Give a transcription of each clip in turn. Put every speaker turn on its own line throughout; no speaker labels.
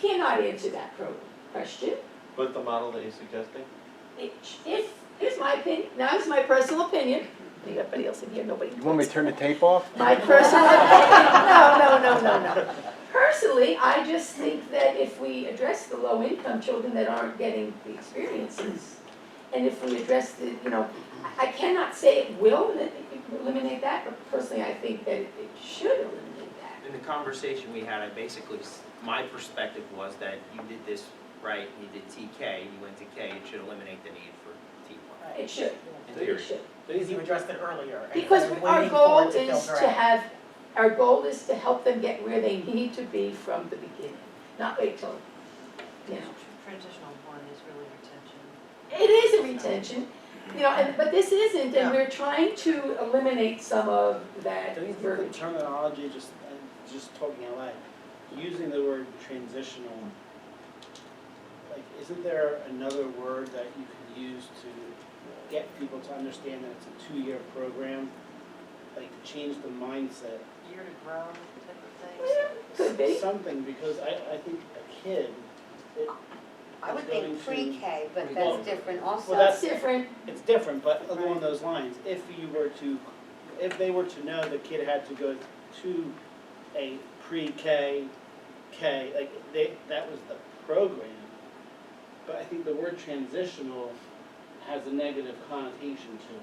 cannot answer that pro- question.
But the model that you're suggesting?
Here's, here's my opinion, now it's my personal opinion. Anybody else in here, nobody.
You want me to turn the tape off?
My personal opinion, no, no, no, no, no. Personally, I just think that if we address the low-income children that aren't getting the experiences, and if we address the, you know, I- I cannot say it will that it can eliminate that, but personally, I think that it it should eliminate that.
In the conversation we had, I basically, s- my perspective was that you did this right, you did TK, you went to K, it should eliminate the need for T1.
It should,
In
it
theory.
should.
Because you addressed it earlier. and
Because
we're
our
waiting for
goal
it to
is
filter
to
out.
have, our goal is to help them get where they need to be from the beginning, not wait till, you know.
Transitional one is really retention.
It is a retention, you know, and, but this isn't, and we're trying to eliminate some of that
Don't you think the
verbiage.
terminology, just, I'm just talking out loud, using the word transitional, like, isn't there another word that you could use to get people to understand that it's a two-year program? Like, change the mindset,
Year to grow type of things.
Yeah, Could be,
something, because I, I think a kid, it,
I would
Going
think
to-
pre-K, but
Well,
that's different also.
well,
that's different,
it's different, but along those lines, if you were to, if they were to know the kid had to go to a pre-K, K, like, they, that was the program. But I think the word transitional has a negative connotation to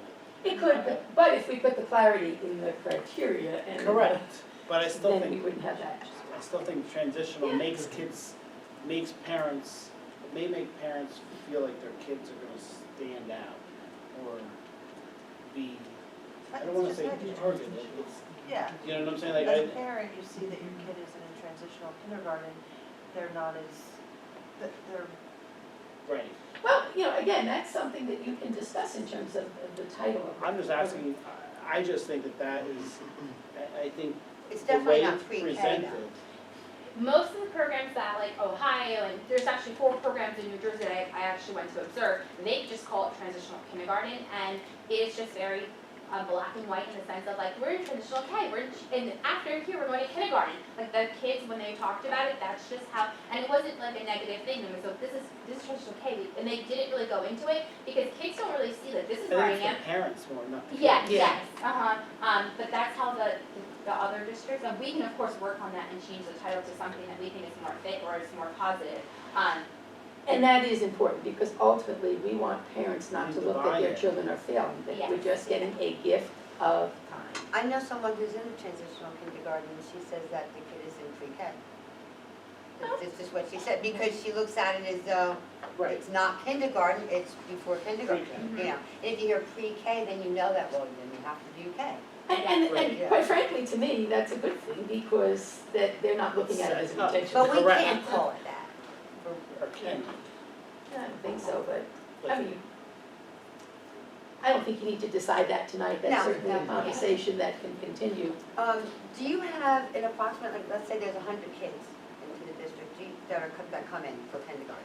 it could, be. but if we put the clarity in the criteria and.
it. Correct. But I still
Then we
think,
wouldn't have that.
I still think transitional
Yeah.
makes kids, makes parents, it may make parents feel like their kids are gonna stand out or be, I don't wanna say targeted, it's,
Yeah,
You know what I'm saying? Like,
as a
I,
parent, you see that your kid is in a transitional kindergarten, they're not as, that they're,
right.
Well, you know, again, that's something that you can discuss in terms of of the title of.
I'm just asking, I I just think that that is, I, I think
It's
the way
definitely not
it's
pre-K
presented.
though.
most of the programs that like Ohio and there's actually four programs in New Jersey that I, I actually went to observe, they just call it transitional kindergarten and it's just very uh, black and white in the sense of like we're in transitional K, we're in, and after here we're going to kindergarten. Like the kids when they talked about it, that's just how and it wasn't like a negative thing. It was like this is this is transitional K, and they didn't really go into it because kids don't really see that this is where
I
I
think
am.
it's the parents more, not the kids.
Yeah,
Yeah.
yes, uh-huh, um, but that's how the, the other districts, and we can of course work on that and change the title to something that we think is more fit or is more positive. Um,
And that is important, because ultimately, we want parents not to look that their
Divide it.
children are failing, that we're
Yes.
just getting a gift of time.
I know someone who's in a transitional kindergarten, and she says that the kid is in pre-K.
Oh.
This is what she said, because she looks at it as though it's not kindergarten, it's before kindergarten, you know. And if you hear pre-K, then you know that, well, then you have to do K.
And, and,
Right,
and
yeah.
quite frankly, to me, that's a good thing, because that they're not looking at it as
Set up.
retention.
But we
Correct.
can't call it that.
Or can,
I don't think so, but,
like,
I mean, I don't think you need to decide that tonight, that's
No,
certainly a
no.
conversation that can continue.
Um, do you have an approximate, like, let's say there's a hundred kids into the district do you- that are, co- that come in for kindergarten.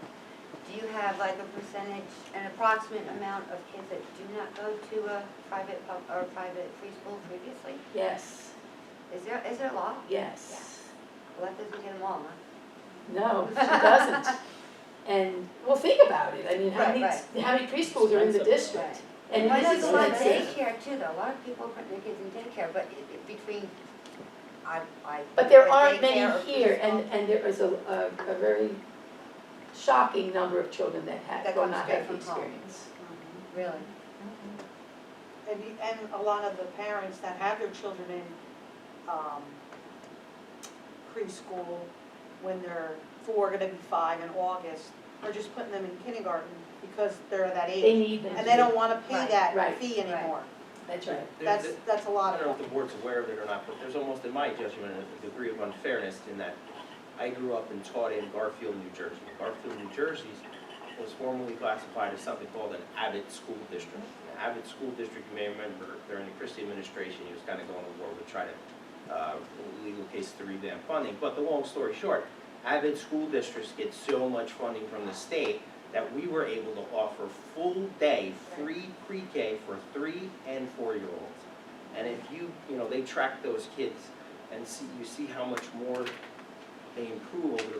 Do you have like a percentage, an approximate amount of kids that do not go to a private, pub- or private preschool previously?
Yes,
Is there, is there a law?
yes,
Well, that doesn't get them all, huh?
no, she doesn't. And, well, think about it, I mean, how
Right,
many,
right.
how many preschools are in the
Expensive.
district? And
Well,
this
there's
is
a lot of
expensive.
daycare too, though, a lot of people put their kids in daycare, but i- i- between, I, I.
But there
but
aren't
daycare
many
or
here, and,
preschool,
and there is a, a, a very shocking number of children that have,
That
will
come
not
straight
have the
from home.
experience.
Mm-hmm. Really?
Mm-hmm.
and, you- and a lot of the parents that have their children in, um, preschool, when they're four, gonna be five in August, are just putting them in kindergarten because they're that
They
age.
need them.
And they don't wanna pay
Right,
that
right,
fee
right.
anymore.
That's right.
There-
That's,
there-
that's a
I
lot of
don't
them.
know if the board's aware of it or not, but there's almost, in my judgment, a degree of unfairness in that I grew up and taught in Garfield, New Jersey. Garfield, New Jersey was formerly classified as something called an Abbott School District. An Abbott School District, you may remember, during the Christie administration, he was kind of going to war with trying to, uh, legal case to revamp funding. But the long story short, Abbott School Districts get so much funding from the state that we were able to offer full-day, free pre-K for three and four-year-olds. And if you, you know, they track those kids and see, you see how much more they improve over the